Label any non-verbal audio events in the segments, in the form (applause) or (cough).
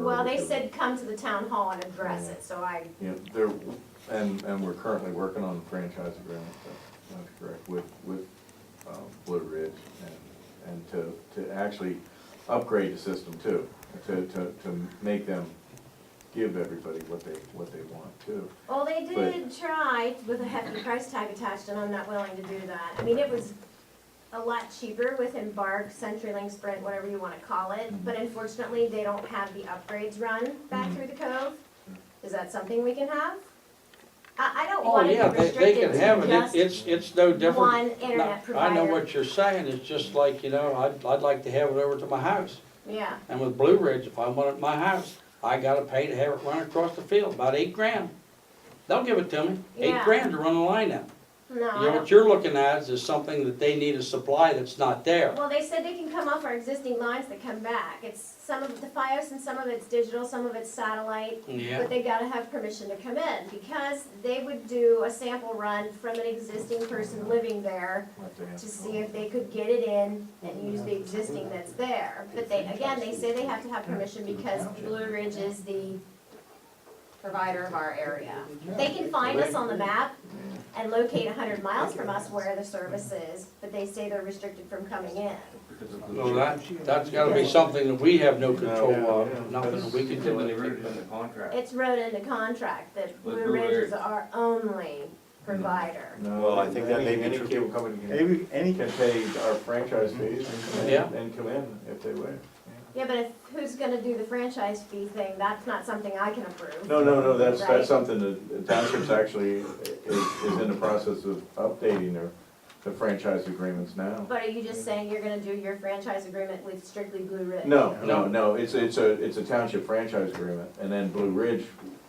Well, they said come to the town hall and address it, so I, Yeah, there, and, and we're currently working on a franchise agreement, that- that's correct, with, with um, Blue Ridge and, and to, to actually upgrade the system too, to, to, to make them give everybody what they, what they want too. well, they did try with a hefty price tag attached, and I'm not willing to do that. I mean, it was a lot cheaper with Embark, CenturyLink, Sprint, whatever you wanna call it, Mm-hmm. but unfortunately, they don't have the upgrades run back Mhm. through the cove. Is that something we can have? I, I don't Oh, wanna yeah, be they, they restricted can have to it, It- just it's, it's no different. one internet No, I know provider. what you're saying, it's just like, you know, I'd, I'd like to have it over to my house. Yeah, And with Blue Ridge, if I want it at my house, I gotta pay to have it run across the field, about eight grand. They'll give it to me, eight Yeah. Uh-huh. grand to run a line out. no, I You know, don't. what you're looking at is something that they need a supply that's not there. Well, they said they can come off our existing lines that come back. It's some of the FiOS and some of it's digital, some of it's satellite. Yeah, But they gotta have permission to come in because they would do a sample run from an existing person living there what they have to see if they could get it in and use the existing that's there. But they, again, they say they have to have permission because Blue Ridge is the provider of our area. They can find us on the map and locate hundred miles from us where the service is, but they say they're restricted from coming in. Oh, well, that, that's gotta be something that we have no control of, nothing that we can do. in the contract. It's wrote in the contract that With Blue Blue Ridge is Ridge. our only provider. No, Well, I think that may be any- true. Any cable company can- Any, any, can pay our franchise fees Mm-hmm. and come Yeah. in, and come in if they wish. Yeah, but if, who's gonna do the franchise fee thing, that's not something I can approve. No, no, no, that's, Right. that's something that the township's actually is, is in the process of updating their, the franchise agreements now. But are you just saying you're gonna do your franchise agreement with strictly Blue Ridge? No, no, no, it's, it's a, it's a township franchise agreement, and then Blue Ridge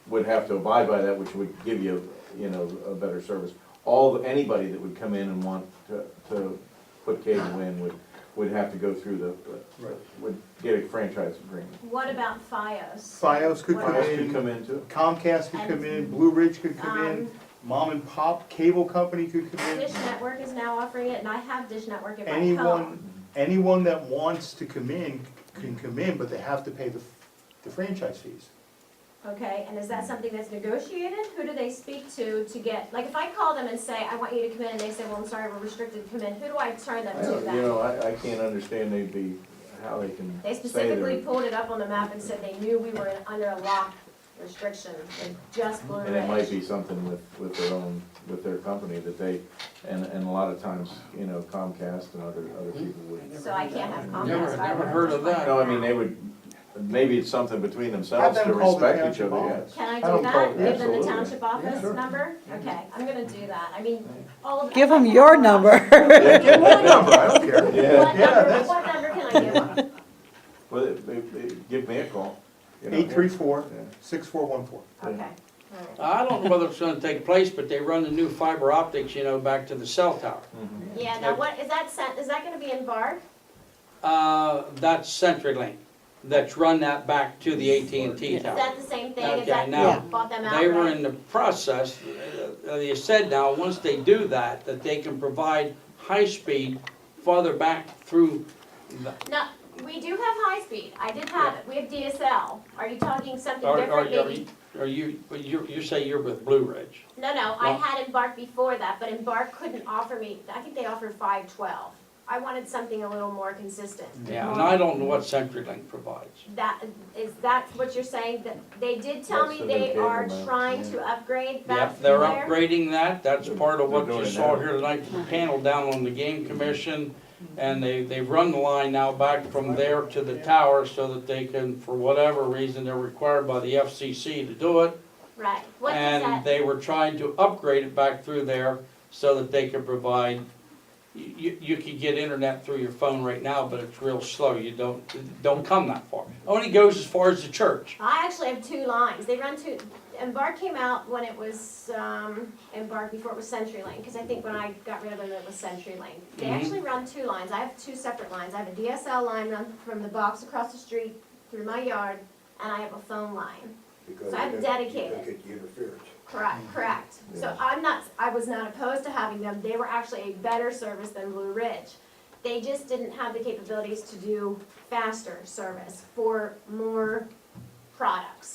would have to abide by that, which would give you, you know, a better service. All, anybody that would come in and want to, to put cable in would, would have to go through the, would get a franchise agreement. What about FiOS? FiOS could come Files could in, come in too. Comcast could come in, Blue Ridge could come in, Um, mom and pop cable company could come in. Dish Network is now offering it, and I have Dish Network in my home. Anyone, anyone that wants to come in can come in, but they have to pay the, the franchise fees. Okay, and is that something that's negotiated? Who do they speak to to get, like, if I call them and say, I want you to come in, and they say, well, I'm sorry, we're restricted to come in, who do I turn them I to don't- You then? know, I, I can't understand they'd be, how they can say They they're- specifically pulled it up on the map and said they knew we were in- under a lock restriction, with just Blue And it might Ridge. be something with, with their own, with their company that they, and, and a lot of times, you know, Comcast and other, other Hmm? people would. So I can't have Comcast. Never- fiber never in heard my of that. home. No, I mean, they would, maybe it's something between themselves Have to them call the respect each township other, office. yes. Can I I do don't that? call- Give them the absolutely. township office number? Okay, I'm gonna do that. I mean, all of. Give them your number. (laughs) Yeah, give them (laughs) my What number, number, I don't care. (laughs) Yeah, that's- what number can I give them? (laughs) well, they- they- they- give me a call. you know. Eight three four, Yeah. six four one four. Okay, all right. I don't know whether it's gonna take place, but they run the new fiber optics, you know, back to the cell tower. Mhm. Yeah, now what, is that sent, is that gonna be in bar? Uh, that's CenturyLink, that's run that back to the AT&T Is tower. that the same thing? Is Okay, that, now, you bought them out, They were in the process, uh, they said now, once they do that, that they can provide high-speed farther back through the, No, we do have high speed. I did have it. We have DSL. Are you talking something are, are, different are maybe? you, are you, but you, you say you're with Blue Ridge. No, no, I No. had Embark before that, but Embark couldn't offer me, I think they offered five twelve. I wanted something a little more consistent. Yeah, and I don't know what CenturyLink provides. That, is that what you're saying? That, they did tell That's me the they new are cable now, trying yeah. to upgrade back Yep, from they're there? upgrading that, that's part of what They're you doing saw that. here tonight, the panel down on the game commission. And they, they've run the line now back from there to the tower so that they can, for whatever reason, they're required by the FCC to do it. Right. What does And that, they were trying to upgrade it back through there so that they could provide, you, you could get internet through your phone right now, but it's real slow, you don't, don't come that far. Only goes as far as the church. I actually have two lines. They run two, Embark came out when it was, um, Embark before it was CenturyLink, because I think when I got rid of them, it was CenturyLink. They Mhm. actually run two lines. I have two separate lines. I have a DSL line run from the box across the street through my yard, and I have a phone line. Because So I'm you don't- dedicated. You don't get interference. Correct, correct. So Yes. I'm not, I was not opposed to having them, they were actually a better service than Blue Ridge. They just didn't have the capabilities to do faster service for more products.